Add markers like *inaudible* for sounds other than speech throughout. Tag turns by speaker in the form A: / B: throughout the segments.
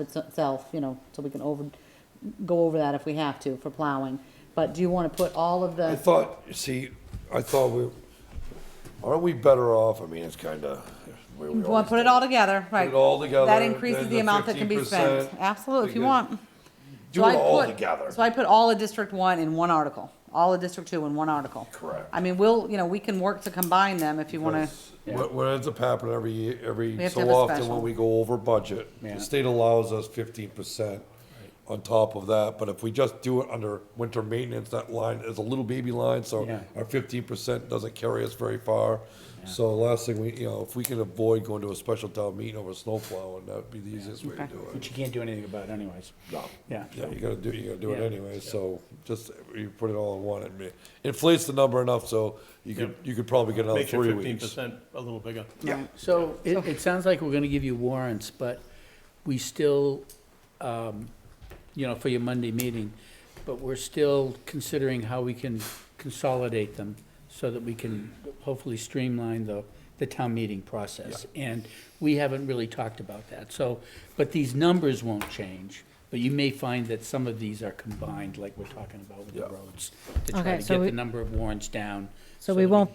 A: of itself, you know, so we can over, go over that if we have to for plowing. But do you want to put all of
B: I
A: the,
B: thought, see, I thought we, aren't we better off, I mean, it's kinda. where we
C: You want
B: always
C: to put it
B: do.
C: all together, right?
B: it all together,
C: That increases
B: then
C: the
B: the
C: amount that can be spent.
B: 15%,
C: Absolutely, if you
B: because-
C: want.
B: Do
C: So
B: it
C: I
B: all
C: put-
B: together.
C: So I put all of District One in one article, all of District Two in one article.
B: Correct.
C: I mean, we'll, you know, we can work to combine them if you want to.
B: Because What, what ends up happening every year,
C: We
B: every
C: have to
B: so
C: have a
B: often
C: special.
B: when we go over budget,
D: Yeah.
B: the state allows us fifteen percent on top of that, but if we just do it under winter maintenance, that line is a little baby line, so
D: Yeah.
B: our fifteen percent doesn't carry us very far. So last thing, we, you know, if we can avoid going to a special town meeting over snowplow, and that'd be the easiest way to
C: Okay.
B: do
D: Which
B: it.
D: you can't do anything about anyways.
B: No.
D: Yeah.
B: Yeah, you gotta do, you gotta do it
D: Yeah.
B: anyway, so just, you put it all in one, it inflates the number enough, so you could, you could probably get another
E: Makes your
B: three
E: fifteen
B: weeks.
E: percent a little bigger.
C: Yeah.
D: So it, it sounds like we're gonna give you warrants, but we still, um, you know, for your Monday meeting, but we're still considering how we can consolidate them so that we can hopefully streamline the, the town meeting process. And we haven't really talked about that, so, but these numbers won't change. But you may find that some of these are combined, like we're talking about with the
B: Yeah.
D: roads, to try
F: Okay,
D: to
F: so
D: get
F: we-
D: the number of warrants down.
F: So we
D: that
F: won't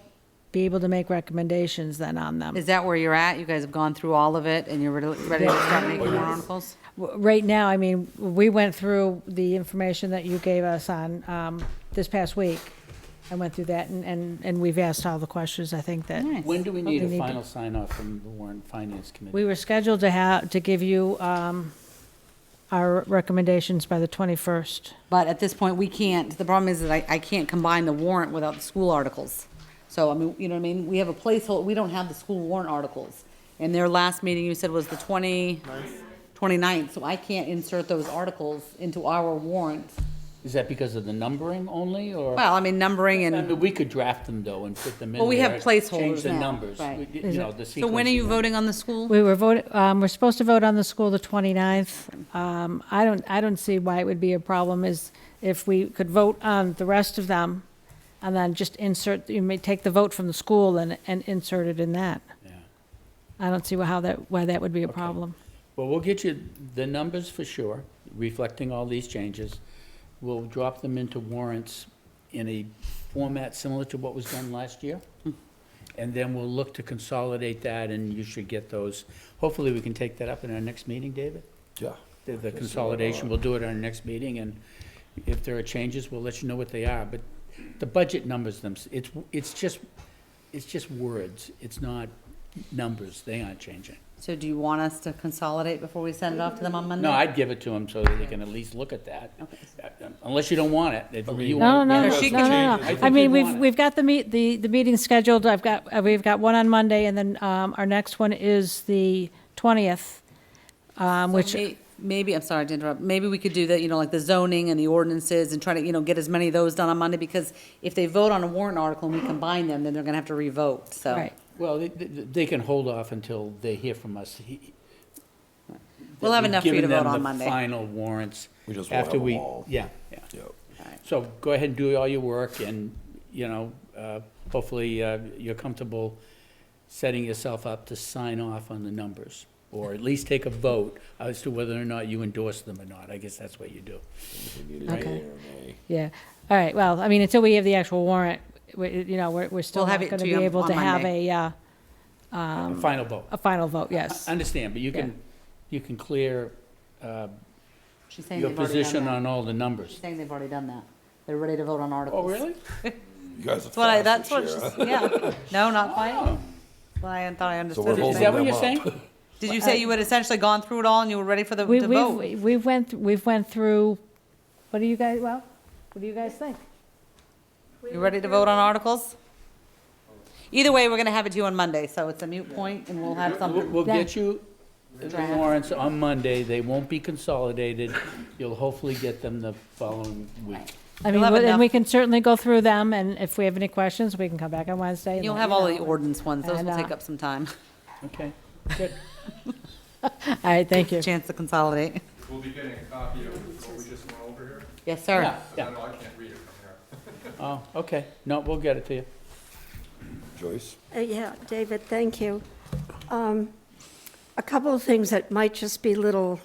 F: be able to make recommendations then on them.
C: Is that where you're at? You guys have gone through all of it and you're ready ready to start making more articles?
F: W- Right now, I mean, we went through the information that you gave us on, um, this past week. I went through that and, and, and we've asked all the questions, I think that.
C: Nice.
D: When do we
F: Well,
D: need
F: we
D: a
F: need to-
D: final sign off from the Warren Finance Committee?
F: We were scheduled to have, to give you, um, our recommendations by the twenty-first.
C: But at this point, we can't, the problem is that I, I can't combine the warrant without the school articles. So, I mean, you know what I mean? We have a placeholder, we don't have the school warrant articles. And their last meeting, you said, was the 20 29th, so I can't insert those articles into our warrant.
D: Is that because of the numbering only, or?
C: Well, I mean, numbering
D: I
C: and,
D: mean, we could draft them though and put them in
C: Well, we have
D: there,
C: placeholders
D: Change the
C: now,
D: numbers,
C: right.
D: we- you know, the
C: so when are you
D: sequencing.
C: voting on the school?
F: We were voting, um, we're supposed to vote on the school the 29th. Um, I don't, I don't see why it would be a problem is if we could vote on the rest of them and then just insert, you may take the vote from the school and, and insert it in that.
D: Yeah.
F: I don't see how that, why that would be a problem.
D: Well, we'll get you the numbers for sure, reflecting all these changes. We'll drop them into warrants in a format similar to what was done last year.
C: Hmm.
D: And then we'll look to consolidate that and you should get those. Hopefully, we can take that up in our next meeting, David?
B: Yeah.
D: the, the consolidation,
B: uh,
D: we'll do it at our next meeting, and if there are changes, we'll let you know what they are, but the budget numbers them, it's, it's just, it's just words, it's not numbers, they aren't changing.
C: So do you want us to consolidate before we send it off to them on Monday?
D: No, I'd give it to them so that they can at least look at that, uh, unless you don't want it, if you
F: No,
D: want.
F: no, no,
C: Yeah,
F: no,
C: she
F: no,
C: can
F: no,
D: change
F: no.
D: it. I think
F: I
D: they
F: mean, we've,
D: want it.
F: we've got the meet, the, the meeting scheduled. I've got, uh, we've got one on Monday and then, um, our next one is the 20th. Um,
C: So
F: which,
C: may- Maybe, I'm sorry to interrupt, maybe we could do that, you know, like the zoning and the ordinances and try to, you know, get as many of those done on Monday, because if they vote on a warrant article and we combine them, then they're gonna have to revote, so.
F: right.
D: Well, they, they- they can hold off until they hear from us. He-
C: We'll have
D: we've
C: enough for you to
D: given them
C: vote on
D: the
C: Monday.
D: Final warrants.
B: We just won't have
D: after
B: them
D: we.
B: all.
D: Yeah, yeah.
B: Yeah.
D: So go ahead and do all your work and, you know, uh, hopefully uh, you're comfortable setting yourself up to sign off on the numbers. Or at least take a vote as to whether or not you endorse them or not. I guess that's what you do.
F: Okay. Yeah, all right, well, I mean, until we have the actual warrant, we, you know, we're, we're still
C: We'll
F: not
C: have it
F: gonna
C: to
F: be
C: you
F: able
C: on
F: to have
C: Monday.
F: a, uh,
D: A final vote.
F: a final vote, yes.
D: I Understand, but you
F: Yeah.
D: can, you can clear uh,
C: She's saying
D: your
C: they've already done
D: position
C: that.
D: on all the
C: She's
D: numbers.
C: saying they've already done that. They're ready to vote on
D: Oh,
C: articles.
B: You guys are
C: That's what I, that's
B: fast this
C: what
B: year, huh?
C: she's, yeah. No, not quite. Well, I thought I understood.
B: we're
C: what you're
D: Is
B: holding
C: saying.
D: that what you're
B: them
D: saying?
B: up.
C: Did you say you had essentially gone through it all and you were ready for the
F: We,
C: to vote?
F: we've, we've went, th- we've went through, what do you guys, well, what do you guys think?
C: You ready to vote on articles? Either way, we're gonna have it to you on Monday, so it's a mute point and we'll have
D: We'll-
C: something.
D: We'll
F: Yeah.
D: get you the
C: Draft.
D: warrants on Monday. They won't be consolidated. You'll hopefully get them the following week.
F: I
C: You'll
F: mean,
C: have
F: we- and we
C: enough-
F: can certainly go through them, and if we have any questions, we can come back on Wednesday. and
C: You'll
F: let
C: have
F: you
C: all the
F: know.
C: ordinance ones, those
F: And,
C: will
F: uh,
C: take up some time.
D: Okay, good.
F: All right, thank
C: *laughs*
F: you.
C: Chance to consolidate.
G: We'll be getting a copy of what we just went over here.
C: Yes, sir.
D: Yeah,
G: I
D: yeah.
G: know I can't read it from here.
D: Oh, okay. No, we'll get it to you.
B: Joyce?
H: Uh, Yeah, David, thank you. Um, A couple of things that might just be little